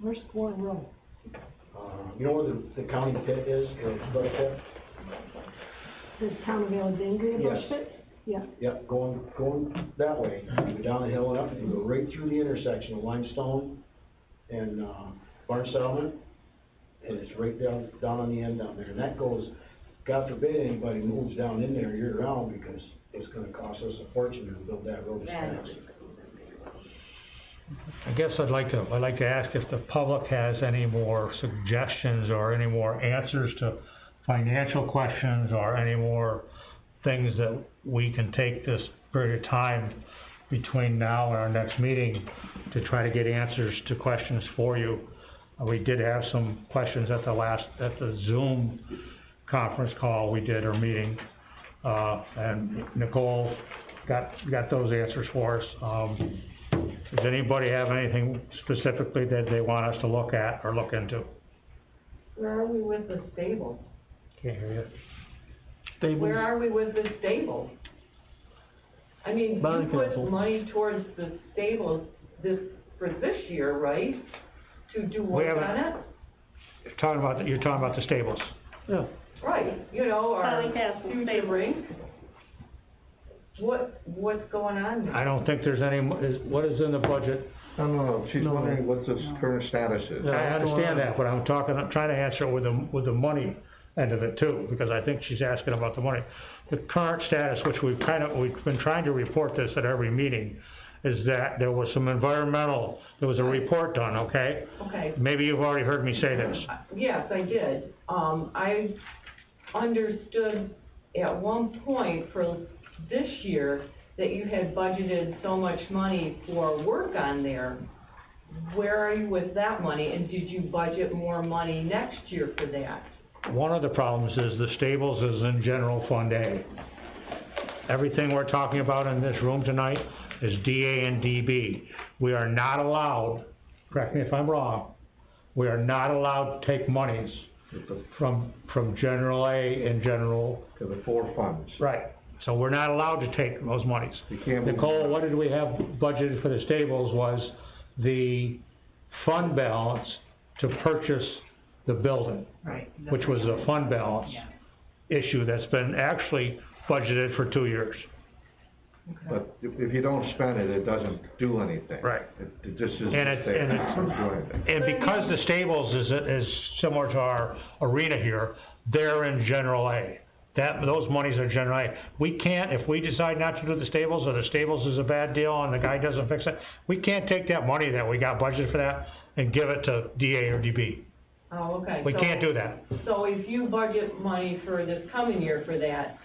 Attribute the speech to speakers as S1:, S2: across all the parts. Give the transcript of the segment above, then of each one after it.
S1: Where's Fort Road?
S2: Uh, you know where the, the county pit is, the brush pit?
S1: Does town of Alexandria
S2: Yes.
S1: brush it? Yeah,
S2: Yep, going, going that way, you go down the hill and up, and you go right through the intersection of Limestone and, uh, Barn Settlement. And it's right down, down on the end down there, and that goes, God forbid anybody moves down in there year round, because it's gonna cost us a fortune to build that road as fast.
S3: I guess I'd like to, I'd like to ask if the public has any more suggestions or any more answers to financial questions or any more things that we can take this period of time between now and our next meeting to try to get answers to questions for you. Uh, We did have some questions at the last, at the Zoom conference call we did or meeting. Uh, and Nicole got, got those answers for us. Um, does anybody have anything specifically that they want us to look at or look into?
S4: Where are we with the stable?
S3: Can't hear you.
S4: Where are we with the stable? I mean, you
S5: Bond council.
S4: put money towards the stables this, for this year, right? To do work
S3: haven't-
S4: on it?
S3: You're talking about, you're talking about the stables.
S5: Yeah,
S4: Right, you know,
S6: Well,
S4: our
S6: we have some
S4: future
S6: stables.
S4: rink. What, what's going on there?
S3: I don't think there's any, mo- is, what is in the budget?
S7: No, no, no, she's
S5: No.
S7: wondering what the current status is.
S3: I
S5: Yeah. that's the one
S3: understand
S5: I-
S3: that, but I'm talking, I'm trying to answer with the, with the money end of it too, because I think she's asking about the money. The current status, which we've kind of, we've been trying to report this at every meeting, is that there was some environmental, there was a report done, okay?
S4: Okay,
S3: Maybe you've already heard me say this.
S4: yes, I did. Um, I understood at one point for this year that you had budgeted so much money for work on there. Where are you with that money, and did you budget more money next year for that?
S3: One of the problems is the stables is in general fund A. Everything we're talking about in this room tonight is DA and DB. We are not allowed, correct me if I'm wrong, we are not allowed to take monies from, from general A and general,
S7: To the four funds.
S3: right. So we're not allowed to take those monies.
S7: You can't move-
S3: Nicole, what did we have budgeted for the stables was the fund balance to purchase the building
S8: Right.
S3: which was a fund balance
S8: Yeah.
S3: issue that's been actually budgeted for two years.
S7: But if, if you don't spend it, it doesn't do anything.
S3: Right.
S7: It, it just isn't
S3: And it's-
S7: there,
S3: and
S7: it
S3: it's-
S7: doesn't do anything.
S3: And because the stables is, is similar to our arena here, they're in general A. That, those monies are general A. We can't, if we decide not to do the stables, or the stables is a bad deal and the guy doesn't fix it, we can't take that money that we got budgeted for that and give it to DA or DB.
S4: Oh, okay.
S3: We
S4: so-
S3: can't do that.
S4: So if you budget money for this coming year for that,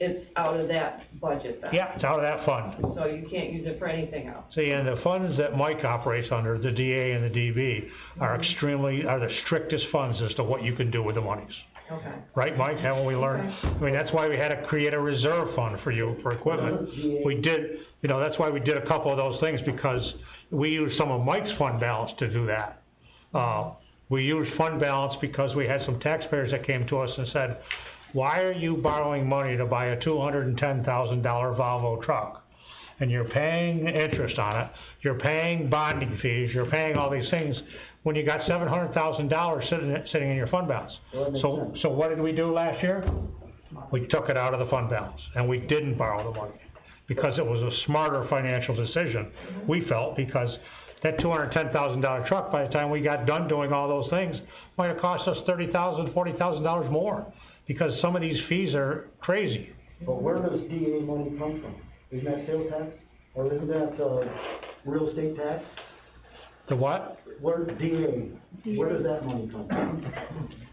S4: it's out of that budget then?
S3: Yeah, it's out of that fund.
S4: So you can't use it for anything else?
S3: See, and the funds that Mike operates under, the DA and the DB, are extremely, are the strictest funds as to what you can do with the monies.
S4: Okay.
S3: Right, Mike, haven't we learned? I mean, that's why we had to create a reserve fund for you, for equipment. We did, you know, that's why we did a couple of those things, because we used some of Mike's fund balance to do that. Uh, we used fund balance because we had some taxpayers that came to us and said, why are you borrowing money to buy a two hundred and ten thousand dollar Volvo truck? and you're paying interest on it, you're paying bonding fees, you're paying all these things, when you got seven hundred thousand dollars sitting, sitting in your fund balance.
S2: Well, that makes
S3: So, so what did we do last year? We took it out of the fund balance, and we didn't borrow the money, because it was a smarter financial decision, we felt, because that two hundred ten thousand dollar truck, by the time we got done doing all those things, might have cost us thirty thousand, forty thousand dollars more, because some of these fees are crazy.
S2: But where does DA money come from? Isn't that sales tax, or isn't that, uh, real estate tax?
S3: The what?
S2: Where, DA, where does that money come from?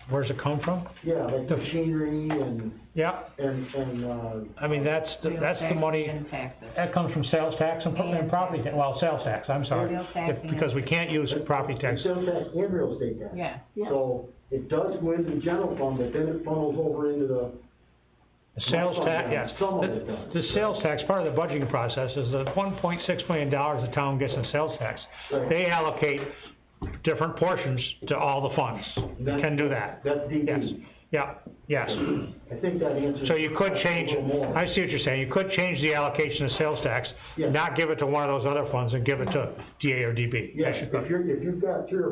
S3: Where's it come from?
S2: Yeah, like the machinery and,
S3: Yeah,
S2: and, and, uh,
S3: I mean, that's, the- that's the money,
S8: And taxes.
S3: that comes from sales tax and pro- and property, ta- well, sales tax, I'm sorry.
S8: Real tax
S3: If-
S8: and-
S3: Because we can't use property tax.
S2: sales tax and real estate tax.
S8: Yeah.
S1: Yeah.
S2: So it does go into the general fund, but then it funnels over into the,
S3: The sales tax, yes.
S2: Some of
S3: The-
S2: it does.
S3: The sales tax, part of the budgeting process is the one point six million dollars the town gets in sales tax.
S2: Right.
S3: They allocate different portions to all the funds.
S2: That-
S3: Can do that.
S2: that's
S3: Yes,
S2: DD.
S3: yeah, yes.
S2: I think that answers.
S3: So you could change,
S2: A little more.
S3: I see what you're saying, you could change the allocation of sales tax,
S2: Yes.
S3: not give it to one of those other funds and give it to DA or DB.
S2: Yeah,
S3: Yes, you could.
S2: if you're, if you've got three or